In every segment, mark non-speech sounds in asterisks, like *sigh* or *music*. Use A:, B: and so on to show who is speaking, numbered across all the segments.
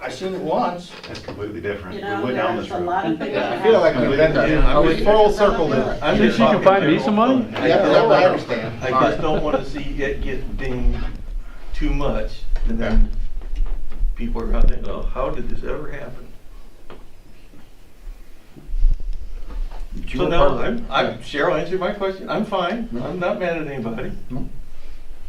A: I seen it once.
B: That's completely different.
C: You
B: We
C: know,
B: went down
C: there's
B: this
C: a
B: road.
C: lot of things.
A: I feel like we've been there.
D: Yeah, I
A: We
D: would-
A: full circled it.
C: I
D: think she can find me some money?
A: Yeah, that I understand.
D: I just don't wanna see it get dinged too much, and then people are out there, oh, how did this ever happen? So now, I'm, I'm, Cheryl answered my question, I'm fine,
E: Mm-hmm.
D: I'm not mad at anybody.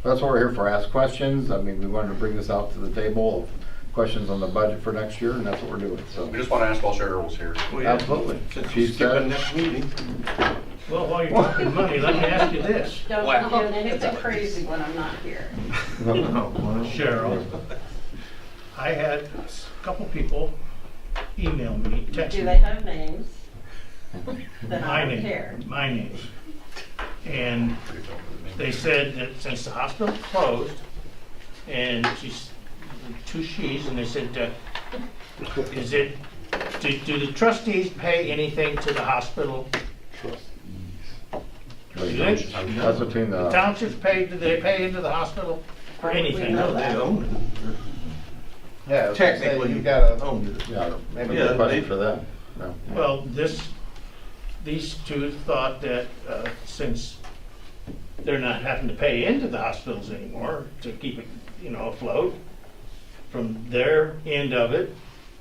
E: That's what we're here for, ask questions. I mean, we wanted to bring this out to the table of questions on the budget for next year, and that's what we're doing, so.
B: We just want to ask all shareholders here.
D: Well, yeah,
E: Absolutely.
D: Since
E: She
D: you skipped the
E: said-
D: next meeting.
F: Well, while you're talking money, let me ask you this,
C: Don't do anything crazy when I'm not here.
E: *laughs*
D: Oh, well.
F: Cheryl. I had a couple people email me, text
C: Do
F: me.
C: they have names? Then I
F: my
C: don't
F: name,
C: care.
F: My name. And they said that since the hospital closed, and she's, two she's, and they said, uh, is it, do, do the trustees pay anything to the hospital? Do they?
E: That's between
F: The
E: the,
F: townships pay, do they pay into the hospital for anything?
C: know
D: No, they owned
A: Yeah, I
D: it.
A: was gonna say,
D: Technically.
A: You gotta,
D: Owned it.
E: yeah, maybe
D: Yeah,
E: a question
D: they-
E: for that. No.
F: Well, this, these two thought that uh, since they're not having to pay into the hospitals anymore to keep it, you know, afloat, from their end of it,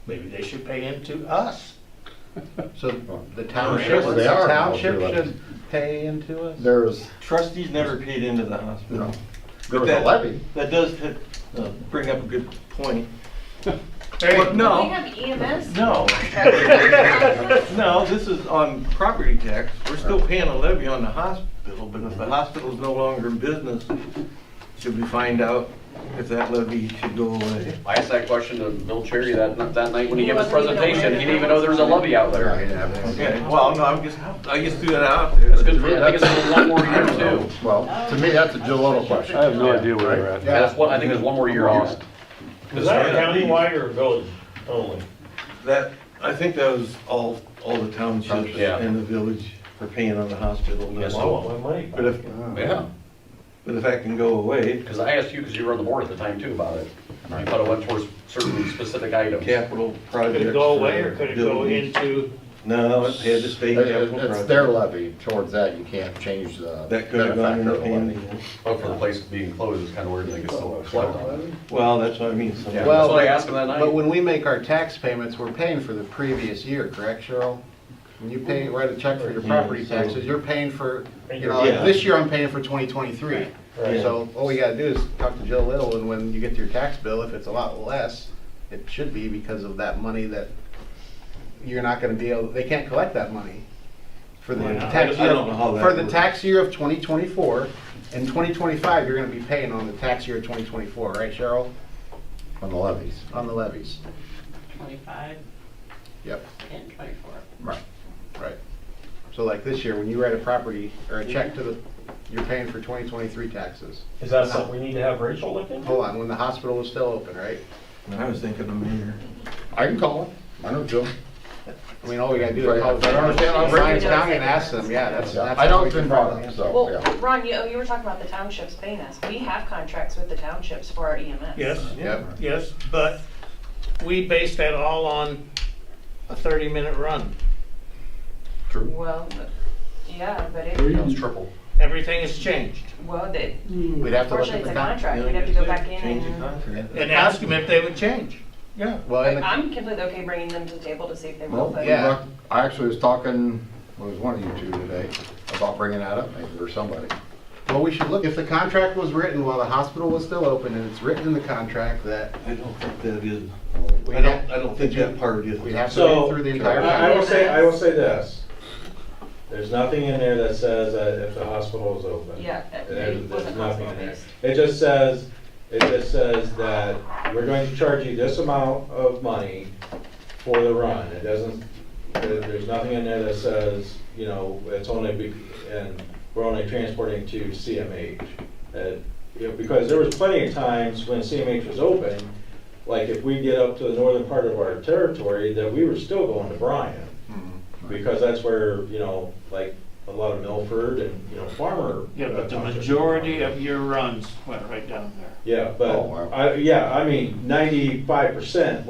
F: maybe they should pay into us.
A: so the
D: sure
A: township,
D: they
A: the
E: are.
A: township should pay into us?
E: There's,
D: Trustees never paid into the hospital.
E: no, there was a
D: That-
E: levy.
D: That does hit- uh, bring up a good point.
F: Hey,
D: But no.
G: We have EMS.
D: *laughs* No, no, this is on property tax. We're still paying a levy on the hospital, but if the hospital's no longer in business, should we find out if that levy should go away?
H: I asked that question to Bill Cherry that, that night when he gave his
C: He wasn't even
H: presentation, he
C: aware.
H: didn't even know there was a levy out
E: Yeah,
H: there.
E: he didn't have it.
D: Okay, well, no, I'm just, I just threw that out there.
H: It's good for, I think it's for one more year too.
E: Well, to me, that's a Gillotto question.
C: I have no
E: idea where we're
H: Yeah, that's one, I think there's one more year on it.
F: Is that
D: countywide
F: or village only?
D: That, I think that was all, all the townships
H: Yeah.
D: and the village for paying on the hospital.
H: Yes,
D: Well, But if,
H: Yeah,
D: but if that can go away,
H: because I asked you, because you were on the board at the time too about it. You thought it went towards certain specific items.
D: capital projects.
F: Could it go away or could it go
D: buildings.
F: into?
D: No, it had to stay
E: It-
D: capital
E: It's their
D: project.
E: levy towards that, you can't change the
D: That could have gone in
E: benefactor
D: the
E: of the levy.
D: hand.
H: But for the place being closed, it's kind of weird they could still collect on it.
D: Well, that's what I mean. so-
H: Yeah, that's what I asked him that
A: But
H: night.
A: when we make our tax payments, we're paying for the previous year, correct, Cheryl? When you pay, write a check for your property
D: Yeah, so-
A: taxes, you're paying for, you know,
D: Yeah.
A: like this year I'm paying for 2023.
D: Right.
A: So all we gotta do is talk to Jill Little, and when you get to your tax bill, if it's a lot less, it should be because of that money that you're not gonna be able, they can't collect that money for the
F: Why not?
A: tax
D: I
A: year,
D: don't know how that
A: for the
D: works.
A: tax year of 2024. In 2025, you're gonna be paying on the tax year of 2024, right, Cheryl?
E: On the levies.
A: On the levies.
C: Twenty-five
A: Yep.
C: and twenty-four.
E: Right.
A: Right. So like this year, when you write a property or a check to the, you're paying for 2023 taxes.
I: Is that something we need to have Rachel look into?
A: Hold on, when the hospital was still open, right?
D: I was thinking the mayor.
E: I can call him, I know Jill.
A: I mean, all we gotta do is call
E: Right. I don't understand.
A: the Ryan's County and ask them, yeah, that's, that's.
E: I
A: how
E: know
A: we
E: it's been
A: can
E: brought
A: find
E: up,
A: out.
E: so,
G: Well,
E: yeah.
G: Ron, you, oh, you were talking about the townships paying us. We have contracts with the townships for our E EMS.
F: Yes.
A: Yep,
F: Yes, but we base that all on a 30-minute run.
G: Well, but- yeah, but it,
H: It was triple.
F: Everything has changed.
G: well, they-
A: we'd have to look
G: unfortunately,
A: at
G: it's
A: the
G: a
A: contract.
G: contract. We'd have to go back in
D: Change the
G: and,
D: contract.
F: And ask them if they would change. Yeah.
A: Well,
G: I-
A: and the-
G: I'm completely okay bringing them to the table to see if they will,
E: Well,
G: but.
A: yeah.
E: I actually was talking, well, it was one of you two today, about bringing that up, maybe, or somebody.
A: well, we should look, if the contract was written while the hospital was still open and it's written in the contract that
D: I don't think that is,
A: we
D: I don't,
A: have,
D: I don't think that part is.
A: we have to
I: So-
A: read through the
I: I
A: entire
I: I
A: contract.
I: will say, I will say this. There's nothing in there that says that if the hospital is open.
G: Yeah, it
I: There- There's
G: wasn't
I: nothing in there.
G: hospital-based.
I: It just says, it just says that we're going to charge you this amount of money for the run. It doesn't, there- there's nothing in there that says, you know, it's only, be- and we're only transporting to CMH. Uh, you know, Because there was plenty of times when CMH was open, like if we get up to the northern part of our territory, that we were still going to Bryan. Because that's where, you know, like a lot of Milford and, you know, farmer.
F: Yeah, but the
I: uh, townships.
F: majority of your runs went right down there.
I: Yeah,
E: Oh, wow.
I: but, I, yeah, I mean, ninety-five percent